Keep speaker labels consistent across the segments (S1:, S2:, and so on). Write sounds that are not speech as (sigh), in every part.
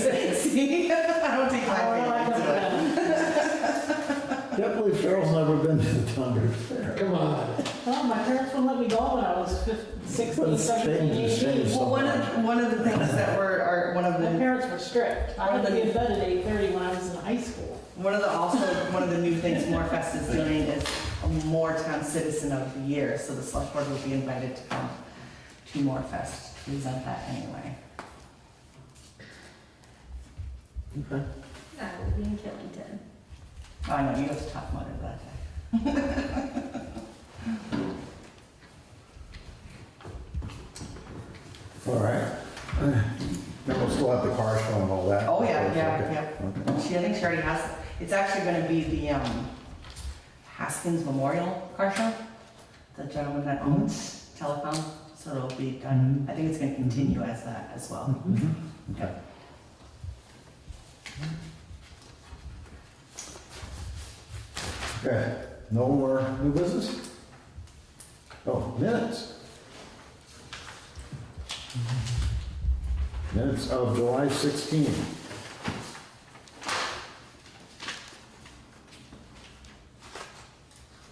S1: (laughs)
S2: believe Cheryl's never been to the Thunder Fair.
S3: Come on.
S4: Well, my parents wouldn't let me go when I was fif-
S2: But
S4: sixteen,
S2: it's
S4: seventeen,
S2: changed, it's
S4: eighteen.
S2: changed.
S1: Well, one of, one of the things that were, are, one of
S4: My
S1: the,
S4: parents were strict. I had to be in bed at eight thirty when I was in high school.
S1: one of the, also, one of the new things Morefest is doing is a Moretown Citizen of the Year, so the select board will be invited to come to Morefest to present that anyway.
S5: I will be in Killington.
S1: Oh, I know, you have to talk more about that.
S2: All right. Then we'll still have the car show and all that.
S1: Uh, Oh, yeah, yeah, yeah.
S2: yeah.
S1: She, I think she already has, it's actually gonna be the, um, Haskins Memorial Car Show, the gentleman that owns Telecom, so it'll be done,
S2: Mm-hmm.
S1: I think it's gonna continue as that as well.
S2: Okay. Okay, no more new business? Oh, minutes. Minutes of July 16.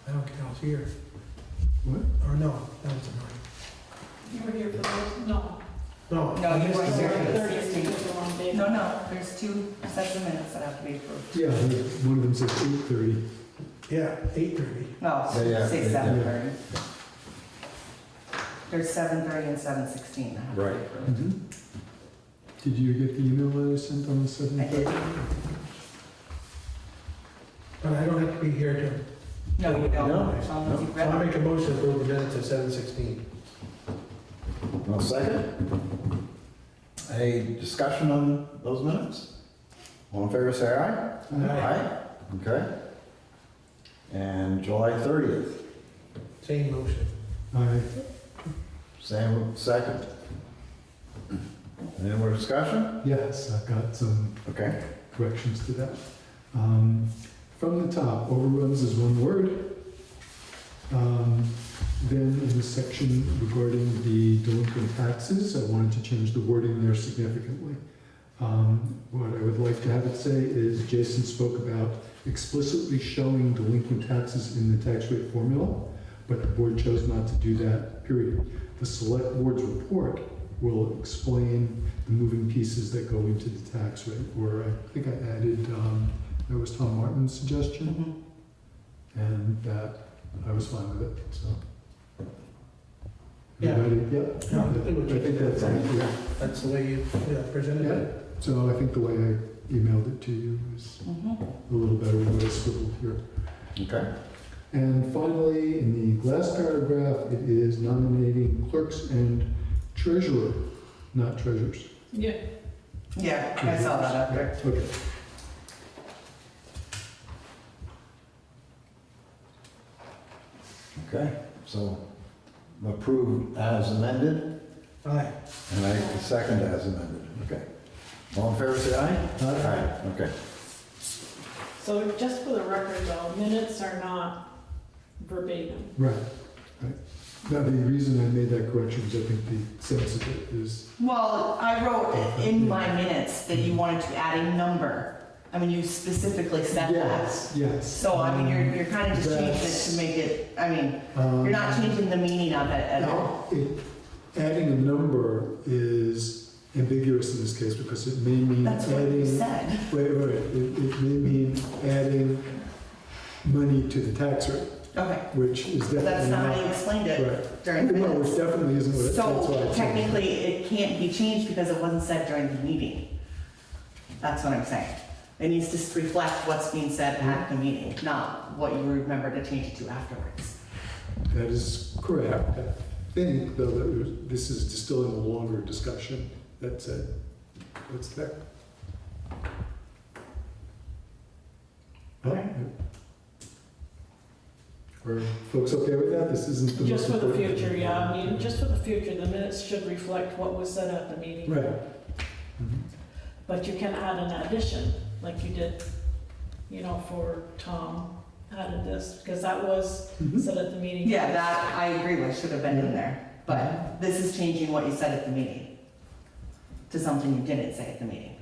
S3: I don't think I was here.
S2: What?
S3: Or no, that was annoying.
S4: You were here for those? No.
S3: No.
S1: No,
S3: I
S1: you
S3: missed
S1: weren't
S3: the-
S1: here for the-
S4: Thirty is the wrong
S2: Mm-hmm.
S4: day.
S1: No, no, there's two sets of minutes that have to be approved.
S6: Yeah, one of them says eight thirty.
S3: Yeah, eight thirty.
S1: No,
S2: Yeah, yeah,
S1: say
S2: yeah,
S1: seven thirty. There's seven thirty and seven sixteen that have to be
S2: Right.
S1: approved.
S6: Did you get the email that I sent on the
S1: I
S6: seventh?
S1: did,
S3: But I don't have to be here to,
S1: no, you
S2: No,
S1: don't, as long as
S2: no.
S1: you've
S3: so I
S1: read
S3: make
S1: it.
S3: a motion to approve the minutes at seven sixteen.
S2: No second? Any discussion on those minutes? All in favor, say aye. Aye. Okay. And July 30th.
S3: Same motion.
S6: I,
S2: Sam, second. Any more discussion?
S6: yes, I've got some
S2: Okay.
S6: corrections to that. Um, From the top, overruns is one word. Um, Then in the section regarding the delinquent taxes, I wanted to change the wording there significantly. Um, What I would like to have it say is Jason spoke about explicitly showing delinquent taxes in the tax rate formula, but the board chose not to do that, period. The select board's report will explain the moving pieces that go into the tax rate, where I think I added, um, that was Tom Martin's suggestion,
S1: Mhm.
S6: and that, I was fine with it, so.
S3: Yeah.
S6: Everybody-
S3: Yeah, I
S6: Yeah,
S3: think we
S6: I think that's,
S3: should-
S6: yeah,
S3: That's the way you yeah, presented it.
S6: so I think the way I emailed it to you is
S1: Mhm.
S6: a little better than what I scribbled here.
S2: Okay.
S6: And finally, in the last paragraph, it is nominating clerks and treasurer, not treasurers.
S4: Yeah.
S1: Yeah, I saw that up there.
S6: Okay.
S2: Okay. So approved as amended,
S3: Aye.
S2: and I second as amended. Okay. All in favor, say aye. Aye. Okay.
S4: So just for the record though, minutes are not verbatim.
S6: Right, right. Now, the reason I made that correction is I think the sense of it is,
S1: Well, I wrote in
S6: (laughs)
S1: my minutes that you wanted to add a number. I mean, you specifically said that.
S6: yes, yes.
S1: So, I mean, you're, you're kind of just changing it
S6: That's-
S1: to make it, I mean,
S6: Um,
S1: you're not changing the meaning of it at all.
S6: Now, it- Adding a number is ambiguous in this case because it may mean
S1: That's what you
S6: adding,
S1: said.
S6: wait, wait, it, it may mean adding money to the tax rate,
S1: Okay,
S6: which is
S1: but that's
S6: definitely
S1: not
S6: not.
S1: how you explained it
S6: Right.
S1: during the
S6: No, it
S1: minutes.
S6: definitely isn't what it, that's
S1: So
S6: why. I changed it.
S1: technically, it can't be changed because it wasn't said during the meeting. That's what I'm saying. It needs to s- reflect what's being said at the meeting, not what you remember to change it to afterwards.
S6: That is correct. I think, though, that was- this is distilling a longer discussion. That's it. That's that.
S1: Okay.
S6: Are folks okay with that? This isn't the most
S4: Just for the
S6: important thing.
S4: future, yeah, I mean, just for the future, the minutes should reflect what was said at the meeting.
S6: Right. Mhm.
S4: But you can add an addition, like you did, you know, for Tom added this, because that was
S6: Mhm.
S4: said at the meeting.
S1: Yeah, that I agree with, should have been in there, but this is changing what you said at the meeting to something you didn't say at the meeting.